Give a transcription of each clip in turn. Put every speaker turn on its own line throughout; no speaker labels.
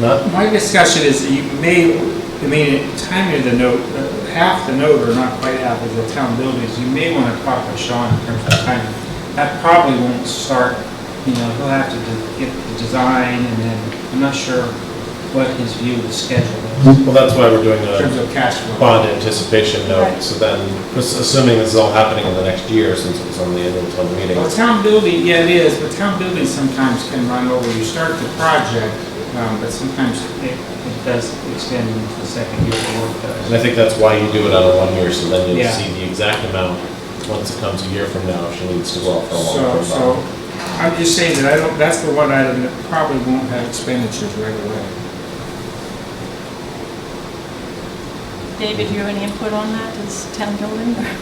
Not,
My discussion is that you may, I mean, timing of the note, uh, half the note, or not quite half of the town buildings, you may want to talk with Sean in terms of timing. That probably won't start, you know, he'll have to de- get the design, and then, I'm not sure what his view of the schedule is
well, that's why we're doing
in terms
a
of cash flow.
bond anticipation note,
Right.
so then, ass- assuming this is all happening in the next year, since it was on the annual town meeting.
Well, town building, yeah, it is, but town buildings sometimes can run over, you start the project, um, but sometimes it it does extend into the second year of work. does.
And I think that's why you do it out of one year, so then you'll
Yeah.
see the exact amount once it comes a year from now, if she needs to go out for a
So,
long-term
so,
bond.
I'm just saying that I don't, that's the one item that probably won't have expenditures right away.
David, do you have any input on that, this town building? or-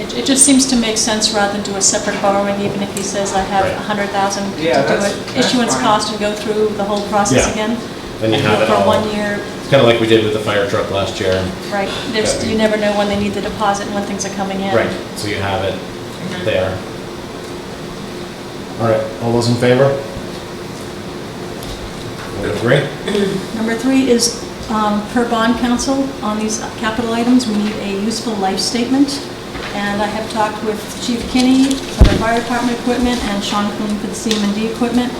It, it just seems to make sense rather than do a separate borrowing, even if he says I have
Right.
a hundred thousand to do
Yeah, that's-
it.
that's
Issuance
fine.
cost and go through the whole process
Yeah.
again.
Then you have it
For
all,
one year,
it's kind of like we did with the fire truck last year.
right, there's,
Okay.
you never know when they need the deposit and when things are coming in.
Right, so you have it
Mm-hmm.
there. All right, all those in favor? We agree?
Number three is, um, per bond council, on these capital items, we need a useful life statement. And I have talked with Chief Kinney for the fire department equipment and Sean Kuhn for the CMD equipment.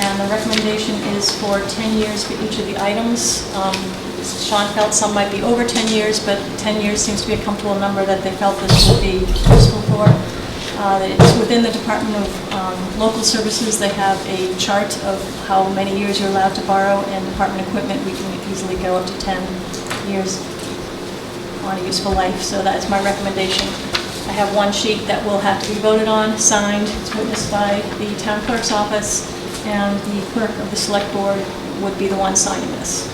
And the recommendation is for 10 years for each of the items. Um, Sean felt some might be over 10 years, but 10 years seems to be a comfortable number that they felt this would be useful for. Uh, It's within the Department of um, Local Services, they have a chart of how many years you're allowed to borrow, and department equipment, we can easily go up to 10 years on a useful life, so that's my recommendation. I have one sheet that will have to be voted on, signed, it's witnessed by the town clerk's office, and the clerk of the select board would be the one signing this.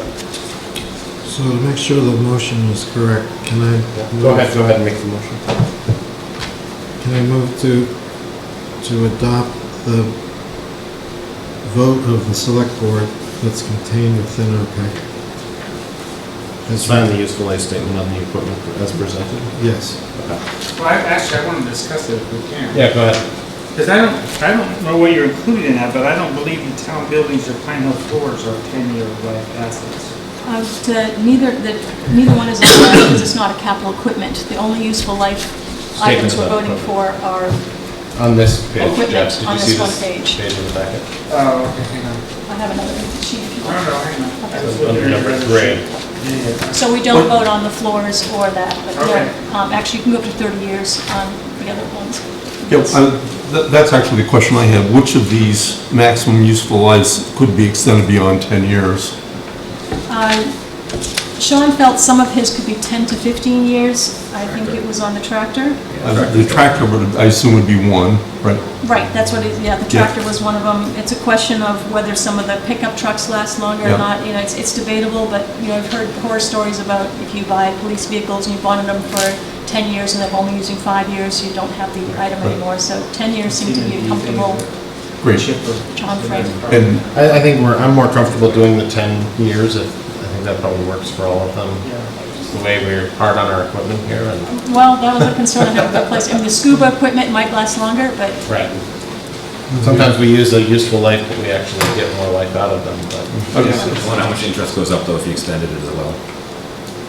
So to make sure the motion is correct, can I?
Go ahead, go ahead and make the motion.
Can I move to, to adopt the vote of the select board that's contained within our packet? As
Sign the
written?
useful life statement on the equipment as presented.
Yes.
Well, I- actually, I want to discuss it if we can.
Yeah, go ahead.
Because I don't, I don't know what you're including in that, but I don't believe the town buildings or Pine Hill floors are ten-year life assets.
Uh, the- Neither, the- neither one is allowed because it's not a capital equipment. The only useful life items
Statements
we're
about
voting for
equipment.
are
On this page,
Equipment
Jeff, did
on
you
this
see
one
this
page.
page in the packet?
Oh, okay, hang on.
I have another sheet. if you
I don't know,
want.
hang on. I was looking
Under
at
number
another
three.
sheet. Yeah, yeah.
So we don't vote on the floors or that, but
Okay.
they're, um, actually, you can go up to 30 years on the other ones.
Yeah, uh, th- that's actually the question I have. Which of these maximum useful lives could be extended beyond 10 years?
Uh, Sean felt some of his could be 10 to 15 years. I think it was on the tractor.
Uh, The tractor, would I assume, would be one, right?
Right, that's what it, yeah, the
Yeah.
tractor was one of them. It's a question of whether some of the pickup trucks last longer or
Yeah.
not, you know, it's, it's debatable, but, you know, I've heard horror stories about if you buy police vehicles and you've bonded them for 10 years and they're only using five years, you don't have the item
Right.
anymore, so 10 years seems to be a
These
comfortable.
things are
Great.
chipper.
John Frank.
And-
I, I think we're, I'm more comfortable doing the 10 years. if- I think that probably works for all of them.
Yeah.
Just The way we're hard on our equipment here and.
Well, that was a concern I had with the place. I mean, the scuba equipment might last longer, but
Right. Mhm. Sometimes we use a useful life, but we actually get more life out of them, but
Okay.
I wonder how much interest goes up though if you extended it as well?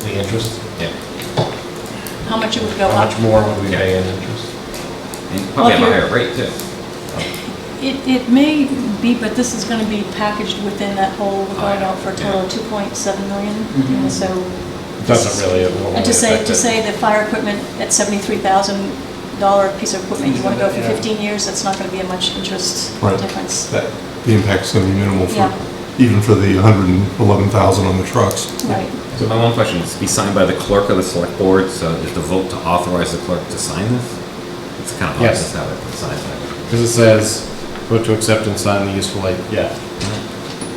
the interest,
Yeah.
how much it would go
how
up.
much more would we pay in interest?
And
Well,
probably
if
have a
you're-
higher rate too.
It, it may be, but this is going to be packaged within that whole, we're going out for a total of 2.7 million, you know, so.
Mm-hmm. It Doesn't really, it won't
And to say,
affect
to
it.
say the fire equipment, that seventy-three thousand dollar piece of equipment, you wanna go for
Yeah.
fifteen years, that's not gonna be a much interest
Right.
difference.
that The impact's going to be minimal
Yeah.
for, even for the 111,000 on the trucks.
Right,
So my one question is, be signed by the clerk of the select board, so is the vote to authorize the clerk to sign this? It's kind of odd
Yes.
to have it signed that
Because it says, vote to accept and sign the useful life, yeah.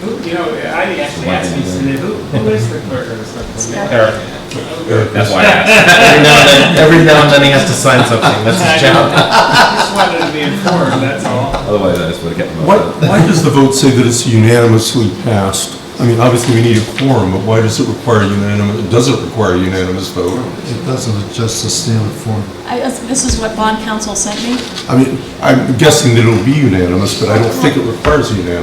Who, you know, I actually asked me, today, who, who is the clerk of the select board?
Eric,
way. That's why I asked.
every now and then, every now and then he has to sign something, that's his job.
I just wanted to be informed, that's all.
Otherwise, I just would have kept my
Why,
vote.
why does the vote say that it's unanimously passed? I mean, obviously, we need a quorum, but why does it require unanimous, does it require a unanimous vote?
It doesn't adjust the standard form.
I, this is what bond council sent me,
I mean, I'm guessing that it'll be unanimous, but I don't think it requires a unanimous